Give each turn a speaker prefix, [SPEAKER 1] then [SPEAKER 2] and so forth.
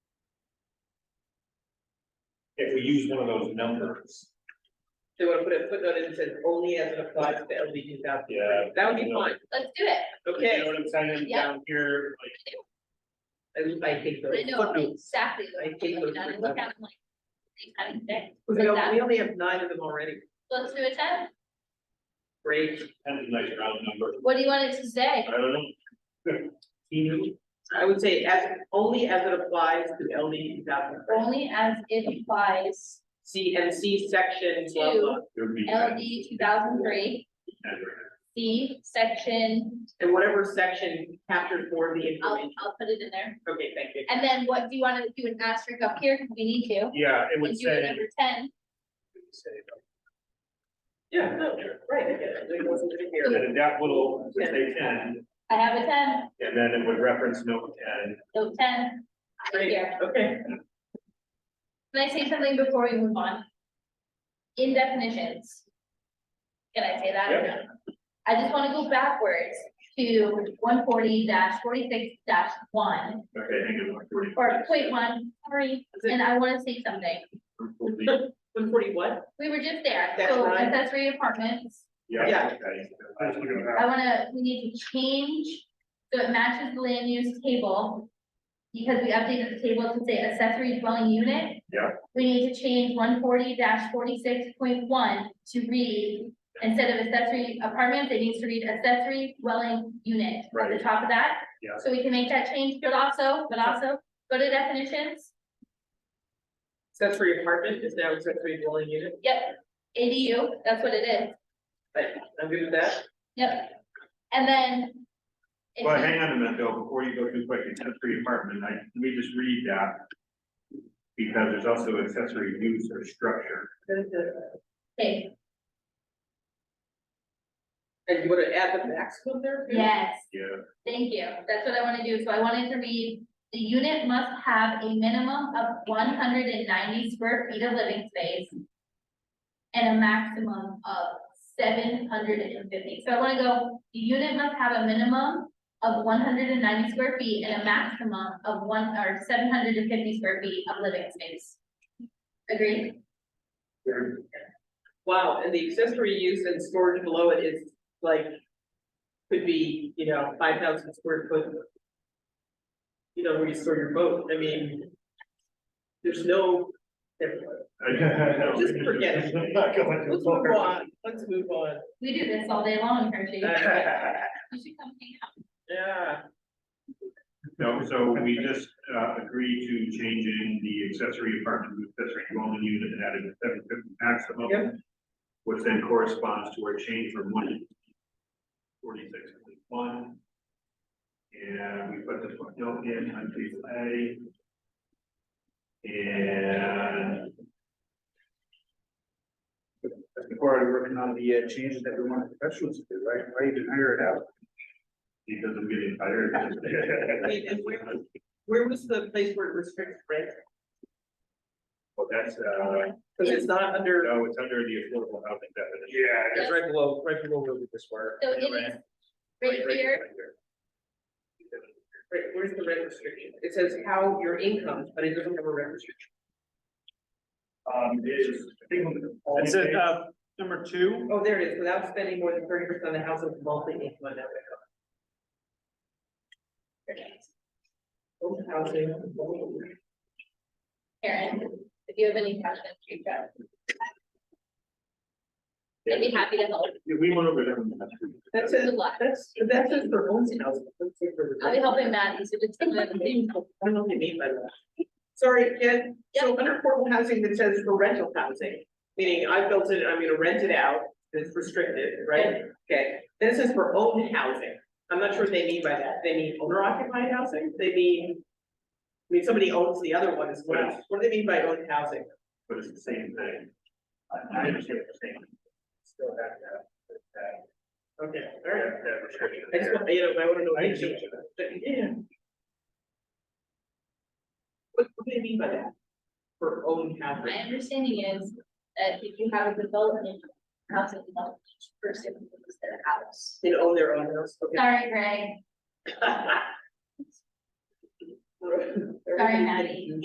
[SPEAKER 1] if we use one of those numbers.
[SPEAKER 2] They wanna put a footnote in that says only as it applies to LD two thousand.
[SPEAKER 1] Yeah.
[SPEAKER 2] That would be fine,
[SPEAKER 3] Let's do it.
[SPEAKER 1] You know
[SPEAKER 2] okay,
[SPEAKER 1] what I'm saying,
[SPEAKER 3] Yeah.
[SPEAKER 1] down here, like,
[SPEAKER 2] I, I take those
[SPEAKER 3] I know
[SPEAKER 2] footnotes.
[SPEAKER 3] exactly what
[SPEAKER 2] I
[SPEAKER 3] I'm
[SPEAKER 2] think
[SPEAKER 3] doing,
[SPEAKER 2] those
[SPEAKER 3] and I
[SPEAKER 2] are
[SPEAKER 3] look
[SPEAKER 2] clever.
[SPEAKER 3] at them like. They kind of fit.
[SPEAKER 2] We
[SPEAKER 3] Like
[SPEAKER 2] only,
[SPEAKER 3] that.
[SPEAKER 2] we only have nine of them already,
[SPEAKER 3] Let's do a ten.
[SPEAKER 2] great,
[SPEAKER 1] kind of nice round number,
[SPEAKER 3] What do you want it to say?
[SPEAKER 1] I don't know. You
[SPEAKER 2] I would say as, only as it applies to LD two thousand.
[SPEAKER 3] Only as it applies
[SPEAKER 2] C and C section, blah,
[SPEAKER 3] Two.
[SPEAKER 2] blah,
[SPEAKER 1] would be
[SPEAKER 3] LD
[SPEAKER 1] kind of-
[SPEAKER 3] two thousand three,
[SPEAKER 1] kind of-
[SPEAKER 3] C section,
[SPEAKER 2] and whatever section captures more of the
[SPEAKER 3] I'll,
[SPEAKER 2] information,
[SPEAKER 3] I'll put it in there.
[SPEAKER 2] okay, thank you.
[SPEAKER 3] And then what, do you wanna do an asterisk up here? We need to.
[SPEAKER 1] Yeah, it would
[SPEAKER 3] And do it
[SPEAKER 1] say.
[SPEAKER 3] number ten.
[SPEAKER 2] Yeah, no, right, I get it, it wasn't in
[SPEAKER 1] And
[SPEAKER 2] here,
[SPEAKER 1] then that little, would say ten,
[SPEAKER 3] I have a ten,
[SPEAKER 1] and then it would reference note ten,
[SPEAKER 3] note ten. Right
[SPEAKER 2] great,
[SPEAKER 3] here.
[SPEAKER 2] okay,
[SPEAKER 3] Can I say something before we move on? In definitions. Can I say that or no? I just wanna go backwards to one forty forty-six one,
[SPEAKER 1] okay, hang on, one forty.
[SPEAKER 3] or point one, sorry, and I wanna say something.
[SPEAKER 2] one forty what?
[SPEAKER 3] We were just there,
[SPEAKER 2] That's
[SPEAKER 3] so
[SPEAKER 2] right.
[SPEAKER 3] accessory apartments,
[SPEAKER 1] Yeah.
[SPEAKER 2] Yeah.
[SPEAKER 1] okay. I was looking at
[SPEAKER 3] I wanna, we need to change, so it matches the land use table. Because we updated the table to say accessory dwelling unit.
[SPEAKER 1] Yeah.
[SPEAKER 3] We need to change one forty forty-six point one to read, instead of accessory apartment, it needs to read accessory dwelling unit. At the
[SPEAKER 1] Right.
[SPEAKER 3] top of that.
[SPEAKER 1] Yeah.
[SPEAKER 3] So we can make that change, but also, but also, go to definitions,
[SPEAKER 2] Accessory apartment is now accessory dwelling unit,
[SPEAKER 3] yep, ADU, that's what it is,
[SPEAKER 2] but I'm good with that.
[SPEAKER 3] yep. And then.
[SPEAKER 1] that. Well, hang on a minute though, before you go too quick, accessory apartment, I, let me just read that. Because there's also accessory use or structure.
[SPEAKER 3] Okay,
[SPEAKER 2] And you wanna add the maximum there? too?
[SPEAKER 3] yes.
[SPEAKER 1] Yeah,
[SPEAKER 3] Thank you, that's what I wanna do, so I wanted to read, the unit must have a minimum of one hundred and ninety square feet of living space. And a maximum of seven hundred and fifty, so I wanna go, the unit must have a minimum of one hundred and ninety square feet and a maximum of one, or seven hundred and fifty square feet of living space. Agreed?
[SPEAKER 2] Wow, and the accessory use and storage below it is like, could be, you know, five thousand square foot. You know, where you store your boat, I mean, there's no, never mind. Just forget it.
[SPEAKER 1] I'm not going to
[SPEAKER 2] let's move on, let's move on,
[SPEAKER 3] We do this all day long, Hershey, you should come hang out.
[SPEAKER 2] yeah,
[SPEAKER 1] No, so we just, uh, agreed to changing the accessory apartment to accessory dwelling unit and added a seven fifty
[SPEAKER 2] Yep.
[SPEAKER 1] maximum. Which then corresponds to our change from one forty-six to one. And we put the footnote in on table A. And.
[SPEAKER 4] Before I working on the uh, changes that we want the professionals to do, right? Why even hire it out?
[SPEAKER 1] Because I'm getting tired.
[SPEAKER 2] Wait, and where, where was the place where it restricts rent?
[SPEAKER 1] Well, that's, uh,
[SPEAKER 2] Cause it's not under,
[SPEAKER 1] no, it's under the affordable housing definition.
[SPEAKER 4] Yeah,
[SPEAKER 3] it's
[SPEAKER 4] right below, right below where we just were.
[SPEAKER 3] So it is right here.
[SPEAKER 2] right, where's the rent restriction? It says how your income, but it doesn't have a rent restriction.
[SPEAKER 1] Um, is, I think. on the-
[SPEAKER 4] That's it, uh, number two.
[SPEAKER 2] Oh, there it is, without spending more than thirty percent of the household multi-income net income. Housing.
[SPEAKER 3] Karen, if you have any questions, reach out. I'd be happy to help.
[SPEAKER 1] Yeah, We went over them.
[SPEAKER 2] That's
[SPEAKER 3] Good
[SPEAKER 2] it,
[SPEAKER 3] luck.
[SPEAKER 2] that's, that says for own housing. Let's see for the-
[SPEAKER 3] I'll be helping Matt. He's just.
[SPEAKER 2] I don't know what you mean by that. Sorry, Jen, so under affordable housing that says for rental housing, meaning I built it, I'm gonna rent it out, it's restricted, right? Okay, then it says for own housing, I'm not sure what they mean by that, they mean owner occupied housing, they mean. I mean, somebody owns the other one as well, what do they mean by own housing?
[SPEAKER 1] But it's the same thing. I I understand what you're saying. Still have that, that,
[SPEAKER 2] Okay, all right,
[SPEAKER 1] that that restriction
[SPEAKER 2] I just,
[SPEAKER 1] there.
[SPEAKER 2] want- you know, I wanna know. what
[SPEAKER 4] I
[SPEAKER 2] they mean. Yeah. What, what do they mean by that? For own
[SPEAKER 3] My
[SPEAKER 2] housing?
[SPEAKER 3] understanding is that if you have a development, housing development, each person owns their house.
[SPEAKER 2] They own their own house, okay.
[SPEAKER 3] Sorry, Greg.
[SPEAKER 2] Sorry,
[SPEAKER 3] Sorry, Maddie.